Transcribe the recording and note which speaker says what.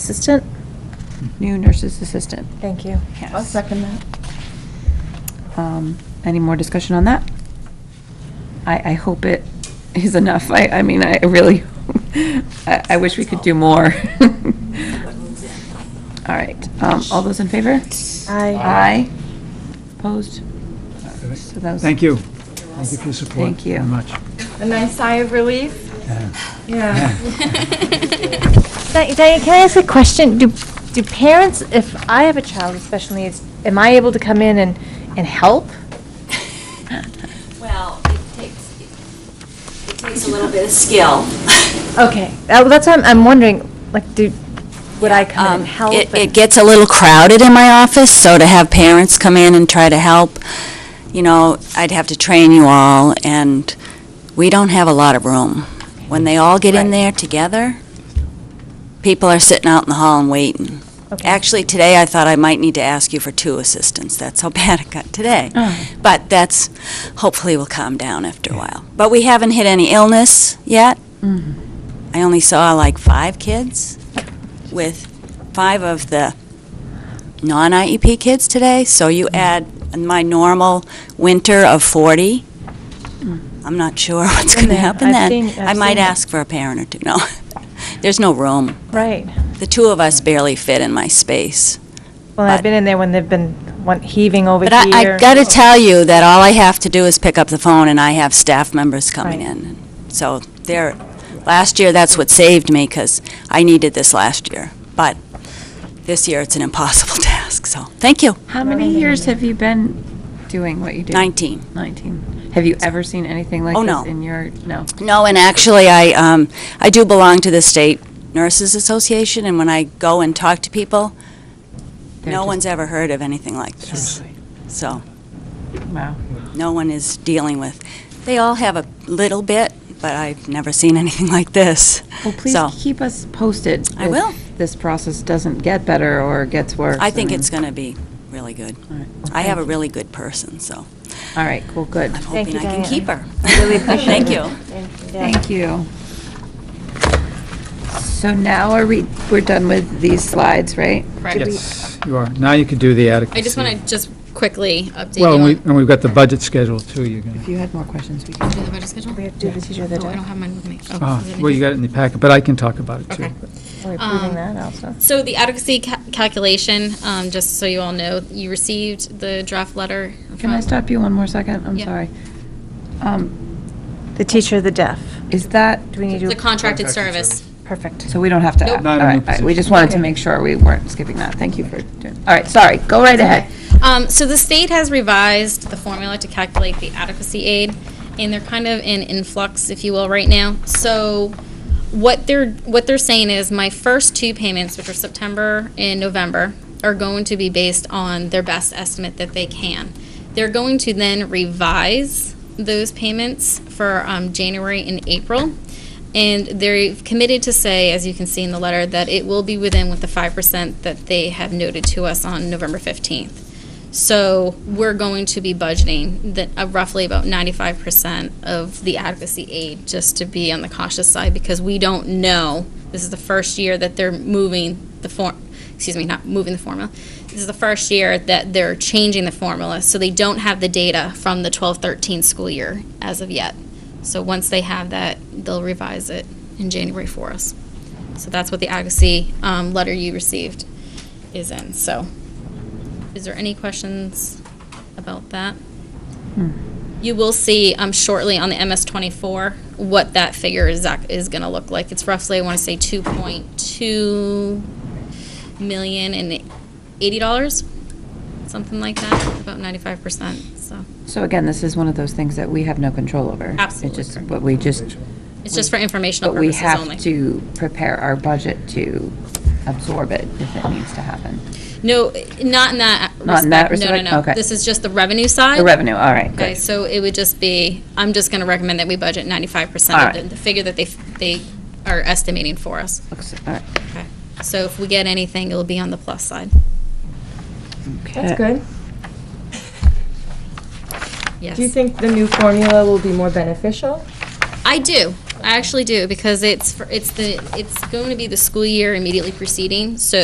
Speaker 1: assistant?
Speaker 2: new nurse's assistant.
Speaker 1: Thank you.
Speaker 3: I'll
Speaker 2: Yes.
Speaker 3: second that.
Speaker 2: Um, Any more discussion on that? I, I hope it is enough. I, I mean, I really, I, I wish we could do more. All right, um, all those in favor?
Speaker 1: Aye.
Speaker 2: Aye. Opposed? So that was-
Speaker 4: Thank you. Thank you for your support.
Speaker 2: Thank you.
Speaker 4: Very much.
Speaker 3: A nice sigh of relief. Yeah.
Speaker 1: Di- Diane, can I ask a question? Do, do parents, if I have a child with special needs, am I able to come in and, and help?
Speaker 5: Well, it takes, it takes a little bit of skill.
Speaker 1: Okay, that- that's what I'm, I'm wondering, like, do, would I come in
Speaker 5: Um,
Speaker 1: and help?
Speaker 5: It,
Speaker 1: and-
Speaker 5: it gets a little crowded in my office, so to have parents come in and try to help, you know, I'd have to train you all, and we don't have a lot of room. When they all get in
Speaker 1: Right.
Speaker 5: there together, people are sitting out in the hall and waiting.
Speaker 1: Okay.
Speaker 5: Actually, today I thought I might need to ask you for two assistants. That's how bad it got today.
Speaker 1: Oh.
Speaker 5: But that's, hopefully will calm down after a while. But we haven't hit any illness yet.
Speaker 1: Mm-hmm.
Speaker 5: I only saw like five kids with five of the non-IEP kids today. So you
Speaker 1: Mm-hmm.
Speaker 5: add my normal winter of 40. I'm not sure what's going to
Speaker 1: then
Speaker 5: happen
Speaker 1: Mm. I've
Speaker 5: then.
Speaker 1: seen- I've
Speaker 5: I might
Speaker 1: seen it.
Speaker 5: ask for a parent or two. No, there's no room.
Speaker 1: Right.
Speaker 5: The two of us barely fit in my space.
Speaker 1: Well, I've
Speaker 5: but-
Speaker 1: been in there when they've been want- heaving over
Speaker 5: But
Speaker 1: here. Oh,
Speaker 5: I, I gotta tell you that all I have to do is pick up the phone and I have staff members coming
Speaker 1: Right.
Speaker 5: in. So there, last year, that's what saved me because I needed this last year. But this year, it's an impossible task, so, thank you.
Speaker 2: How many years have you been doing what you do?
Speaker 5: 19.
Speaker 2: Nineteen. Have you ever seen anything like
Speaker 5: Oh,
Speaker 2: this
Speaker 5: no.
Speaker 2: in your, no?
Speaker 5: No, and actually, I, um, I do belong to the State Nurses Association and when I go and talk to people,
Speaker 2: They're
Speaker 5: no
Speaker 2: just-
Speaker 5: one's ever heard of anything like this. So.
Speaker 2: Wow.
Speaker 5: no one is dealing with. They all have a little bit, but I've never seen anything like this.
Speaker 2: Well, please
Speaker 5: So-
Speaker 2: keep us posted.
Speaker 5: I
Speaker 2: if
Speaker 5: will.
Speaker 2: This process doesn't get better or gets worse.
Speaker 5: I think
Speaker 2: mean-
Speaker 5: it's going to be really good.
Speaker 2: All right. Well,
Speaker 5: I have a
Speaker 2: thank
Speaker 5: really good person, so
Speaker 2: you. All right, cool, good.
Speaker 5: I'm
Speaker 1: Thank
Speaker 5: hoping I
Speaker 1: you,
Speaker 5: can
Speaker 1: Diane.
Speaker 5: keep her.
Speaker 1: I really appreciate
Speaker 5: Thank
Speaker 1: it.
Speaker 5: you.
Speaker 1: Yeah.
Speaker 2: Thank you. So now are we, we're done with these slides, right?
Speaker 6: Correct.
Speaker 4: Yes, you are. Now you can do the adequacy.
Speaker 6: I just want to just quickly update you
Speaker 4: Well, and we-
Speaker 6: on
Speaker 4: and we've got the budget schedule, too. You're going
Speaker 2: If
Speaker 4: to,
Speaker 2: you had more questions, we can.
Speaker 6: Do the budget schedule.
Speaker 1: We have to do the teacher of the
Speaker 6: Oh, I
Speaker 1: day.
Speaker 6: don't have mine with me. Oh,
Speaker 4: oh,
Speaker 6: is it in
Speaker 4: well, you
Speaker 6: here?
Speaker 4: got it in the packet, but I can talk about it, too.
Speaker 6: Okay.
Speaker 1: We're approving
Speaker 6: um,
Speaker 1: that also.
Speaker 6: So the adequacy ca- calculation, um, just so you all know, you received the draft letter.
Speaker 2: Can I
Speaker 6: from-
Speaker 2: stop you one more second? I'm
Speaker 6: Yeah.
Speaker 2: sorry. Um,
Speaker 1: The teacher of the deaf.
Speaker 2: Is that,
Speaker 1: Do we need to?
Speaker 6: The contracted
Speaker 4: Contracted
Speaker 6: service.
Speaker 1: Perfect.
Speaker 2: so we don't have to?
Speaker 6: Nope.
Speaker 2: all
Speaker 4: Not in
Speaker 2: right,
Speaker 4: the
Speaker 2: all right, We just
Speaker 4: position.
Speaker 2: wanted to make sure we weren't skipping that. Thank you for doing, all right, sorry, go right ahead.
Speaker 6: Um, so the state has revised the formula to calculate the adequacy aid, and they're kind of in influx, if you will, right now. So what they're, what they're saying is my first two payments, which are September and November, are going to be based on their best estimate that they can. They're going to then revise those payments for, um, January and April. And they're committed to say, as you can see in the letter, that it will be within with the five percent that they have noted to us on November fifteenth. So we're going to be budgeting that uh, roughly about ninety-five percent of the advocacy aid, just to be on the cautious side, because we don't know. This is the first year that they're moving the form, excuse me, not moving the formula. This is the first year that they're changing the formula, so they don't have the data from the twelve thirteen school year as of yet. So once they have that, they'll revise it in January for us. So that's what the advocacy um, letter you received is in. So is there any questions about that?
Speaker 2: Hmm.
Speaker 6: You will see um, shortly on the MS twenty-four what that figure is, ac- is gonna look like. It's roughly, I wanna say, two point two million and eighty dollars, something like that, about ninety-five percent, so.
Speaker 2: So again, this is one of those things that we have no control over.
Speaker 6: Absolutely
Speaker 2: It's just
Speaker 6: correct.
Speaker 2: what we just
Speaker 6: It's just for informational
Speaker 2: But we
Speaker 6: purposes only.
Speaker 2: have to prepare our budget to absorb it if it needs to happen.
Speaker 6: No, not in that respect.
Speaker 2: Not in that
Speaker 6: No,
Speaker 2: respect?
Speaker 6: no, no.
Speaker 2: Okay.
Speaker 6: This is just the revenue side.
Speaker 2: The revenue, all right,
Speaker 6: Okay,
Speaker 2: good.
Speaker 6: so it would just be, I'm just gonna recommend that we budget ninety-five
Speaker 2: All
Speaker 6: percent
Speaker 2: right.
Speaker 6: of the- the figure that they, f- they are estimating for us.
Speaker 2: Looks- all right.
Speaker 6: Okay. So if we get anything, it'll be on the plus side.
Speaker 2: Okay. Uh,
Speaker 3: That's good.
Speaker 6: Yes.
Speaker 3: Do you think the new formula will be more beneficial?
Speaker 6: I do. I actually do because it's for, it's the it's going to be the school year immediately preceding. So